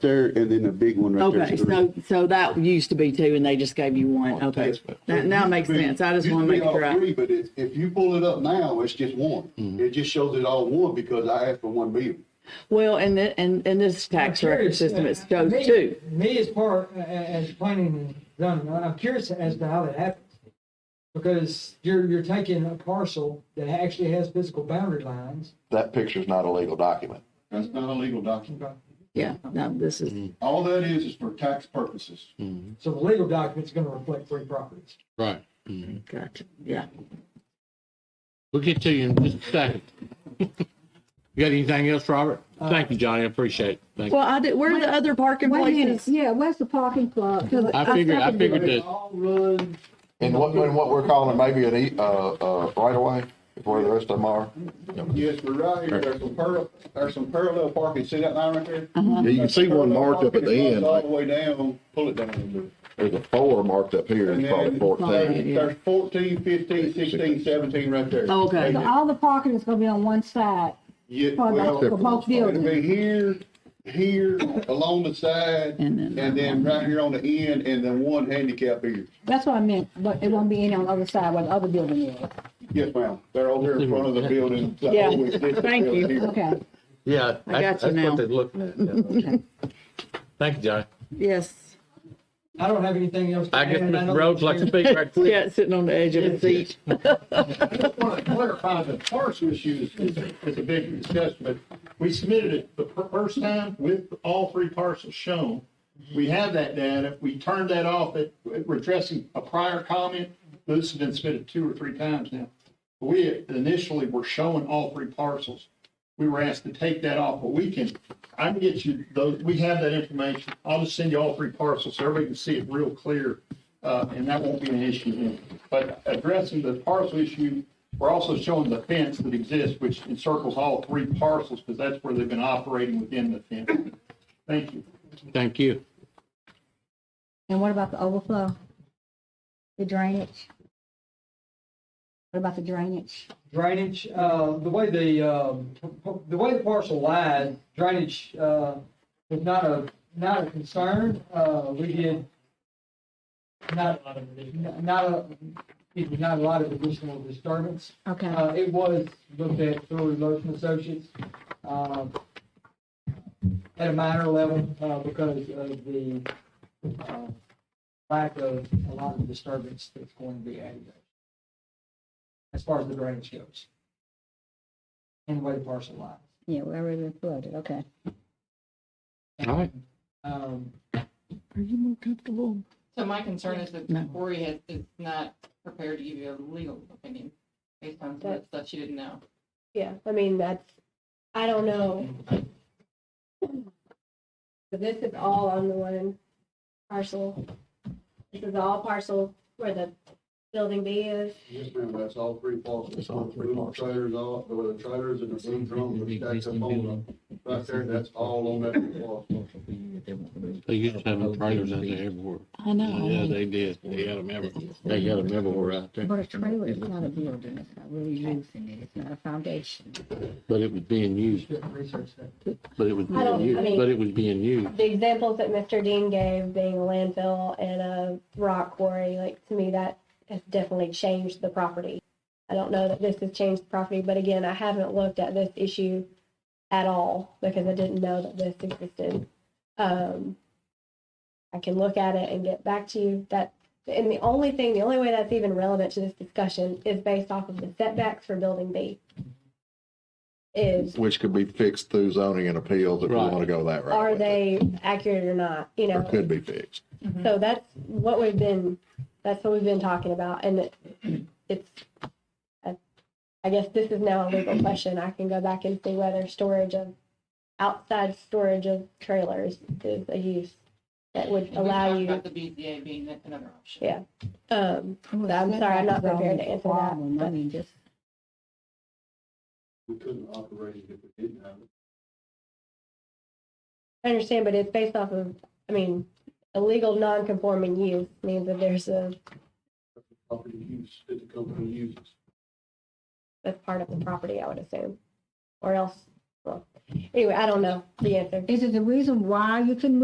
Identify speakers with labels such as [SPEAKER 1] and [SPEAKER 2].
[SPEAKER 1] there and then a big one right there.
[SPEAKER 2] Okay, so, so that used to be two and they just gave you one. Okay. That now makes sense. I just want to make sure.
[SPEAKER 1] All three,
[SPEAKER 2] I-
[SPEAKER 1] but it's, if you pull it up now, it's just one.
[SPEAKER 3] Mm-hmm.
[SPEAKER 1] It just shows it all one because I asked for one bill.
[SPEAKER 2] Well, and, the- and, and this tax record
[SPEAKER 4] curious,
[SPEAKER 2] system,
[SPEAKER 4] uh,
[SPEAKER 2] it shows
[SPEAKER 4] me-
[SPEAKER 2] two.
[SPEAKER 4] Me as part, uh, as planning and zoning, I'm curious as to how that happens. Because you're, you're taking a parcel that actually has physical boundary lines.
[SPEAKER 5] That picture's not a legal document.
[SPEAKER 1] That's not a legal document.
[SPEAKER 2] Yeah, no, this is,
[SPEAKER 1] All that is, is for tax purposes.
[SPEAKER 4] So the legal document's gonna reflect three properties.
[SPEAKER 6] Right.
[SPEAKER 2] gotcha, yeah.
[SPEAKER 6] We'll get to you in just a second. You got anything else, Robert? Thank you, Johnny. I appreciate it. Thank you.
[SPEAKER 2] Uh, Well, I did, where are the other parking
[SPEAKER 7] Wait a minute,
[SPEAKER 2] places?
[SPEAKER 7] yeah, where's the parking plot? 'Cause
[SPEAKER 6] I figured, I
[SPEAKER 7] seconded
[SPEAKER 6] figured
[SPEAKER 1] They
[SPEAKER 6] that,
[SPEAKER 1] all run,
[SPEAKER 5] And what, and what we're calling maybe an, e- uh, uh, right away, where the rest of them are.
[SPEAKER 1] yes, but right here, there's some parallel, there's some parallel parking. See that line right there?
[SPEAKER 2] Uh-huh.
[SPEAKER 3] Yeah, you can see one marked up at the end,
[SPEAKER 1] All
[SPEAKER 3] like
[SPEAKER 1] the way down, pull it down a little bit.
[SPEAKER 3] there's a four marked up here,
[SPEAKER 1] And
[SPEAKER 3] it's probably
[SPEAKER 1] then
[SPEAKER 3] fourteen.
[SPEAKER 2] yeah.
[SPEAKER 1] There's 14, 15, 16, 17 right there.
[SPEAKER 2] Oh, okay.
[SPEAKER 1] Right
[SPEAKER 7] So
[SPEAKER 1] there.
[SPEAKER 7] all the parking is gonna be on one side.
[SPEAKER 1] Yeah,
[SPEAKER 7] for
[SPEAKER 1] well,
[SPEAKER 7] both- for both
[SPEAKER 1] it'll be
[SPEAKER 7] buildings.
[SPEAKER 1] here, here, along the side,
[SPEAKER 2] And then-
[SPEAKER 1] and then right here on the end, and then one handicap here.
[SPEAKER 7] That's what I meant, but it won't be any on the other side where the other building is.
[SPEAKER 1] Yes, ma'am. They're over here in front of the building. the
[SPEAKER 2] Yeah.
[SPEAKER 1] whole existing
[SPEAKER 2] Thank you.
[SPEAKER 1] building here.
[SPEAKER 7] Okay.
[SPEAKER 6] yeah,
[SPEAKER 2] I got
[SPEAKER 6] that's
[SPEAKER 2] you
[SPEAKER 6] that's
[SPEAKER 2] now.
[SPEAKER 6] what they're looking at. yeah. Thank you, Johnny.
[SPEAKER 2] Yes,
[SPEAKER 4] I don't have anything else. to
[SPEAKER 6] I guess
[SPEAKER 4] add. know
[SPEAKER 6] Mr. Rhodes
[SPEAKER 4] that
[SPEAKER 6] like to
[SPEAKER 4] you're-
[SPEAKER 6] speak right quick.
[SPEAKER 2] yeah, sitting on the edge of the seat.
[SPEAKER 1] just want to clarify the parcel issue is, is- is a big discussion, but we submitted it the fir- first time with all three parcels shown. We have that data. We turned that off at, we're addressing a prior comment. This has been submitted two or three times now. We initially were showing all three parcels. We were asked to take that off, but we can, I can get you those, we have that information. I'll just send you all three parcels so everybody can see it real clear. Uh, and that won't be an issue then. But addressing the parcel issue, we're also showing the fence that exists, which encircles all three parcels because that's where they've been operating within the fence. Thank you.
[SPEAKER 6] Thank you.
[SPEAKER 7] And what about the overflow? The drainage? What about the drainage?
[SPEAKER 4] Drainage, uh, the way the, um, the way the parcel lies, drainage, uh, is not a, not a concern. Uh, we did not, not a, excuse me, not a lot of additional disturbance.
[SPEAKER 7] Okay,
[SPEAKER 4] Uh, it was looked at through Lotion Associates, um, at a minor level, uh, because of the, uh, lack of a lot of disturbance that's going to be added. As far as the drainage goes. And the way the parcel lies.
[SPEAKER 7] yeah, we already flooded, okay.
[SPEAKER 6] All right.
[SPEAKER 4] Um,
[SPEAKER 2] Are you more comfortable?
[SPEAKER 8] So my concern is that
[SPEAKER 2] No.
[SPEAKER 8] Cory has, is not prepared to give you a legal opinion based on some of the stuff she didn't know.
[SPEAKER 9] Yeah, I mean, that's, I don't know. But this is all on the one parcel. This is all parcel where the building B is.
[SPEAKER 1] Yes, ma'am, that's all three parcels.
[SPEAKER 5] That's all three parcels.
[SPEAKER 1] Trailers all, the trailers and the food drums are stacked up on the, right there, that's all on that parcel.
[SPEAKER 6] They used to have them trailers out there everywhere.
[SPEAKER 2] I know.
[SPEAKER 6] Yeah, they did. They had them everywhere. They got them everywhere out there.
[SPEAKER 7] But a trailer is not a building, it's not really using it, it's not a foundation.
[SPEAKER 6] But it was being used,
[SPEAKER 4] shouldn't research that.
[SPEAKER 6] but it was
[SPEAKER 9] I don't-
[SPEAKER 6] being
[SPEAKER 9] I
[SPEAKER 6] used,
[SPEAKER 9] mean-
[SPEAKER 6] but it was being used.
[SPEAKER 9] The examples that Mr. Dean gave being a landfill and a rock quarry, like to me, that has definitely changed the property. I don't know that this has changed the property, but again, I haven't looked at this issue at all because I didn't know that this existed. Um, I can look at it and get back to you. That and the only thing, the only way that's even relevant to this discussion is based off of the setbacks for building B. Is
[SPEAKER 5] Which could be fixed through zoning and appeals if we
[SPEAKER 6] Right.
[SPEAKER 5] want to go that route.
[SPEAKER 9] are
[SPEAKER 5] with it.
[SPEAKER 9] they accurate or not? You know,
[SPEAKER 5] Or could be fixed.
[SPEAKER 8] Mm-hmm.
[SPEAKER 9] so that's what we've been, that's what we've been talking about, and it, it's, I- I guess this is now a legal question, I can go back and see whether storage of, outside storage of trailers is a use that would
[SPEAKER 8] And we
[SPEAKER 9] allow
[SPEAKER 8] talked
[SPEAKER 9] you,
[SPEAKER 8] About the BZA being that- another option.
[SPEAKER 9] yeah. Um,
[SPEAKER 7] I'm
[SPEAKER 9] sorry, I'm not prepared to answer that,
[SPEAKER 7] I
[SPEAKER 9] but-
[SPEAKER 7] mean, just
[SPEAKER 1] We couldn't operate it if we didn't have it.
[SPEAKER 9] I understand, but it's based off of, I mean, illegal non-conforming use means that there's a,
[SPEAKER 1] Property use that the company uses.
[SPEAKER 9] that's part of the property, I would assume, or else Anyway, I don't know the answer.
[SPEAKER 7] Is there a reason why you couldn't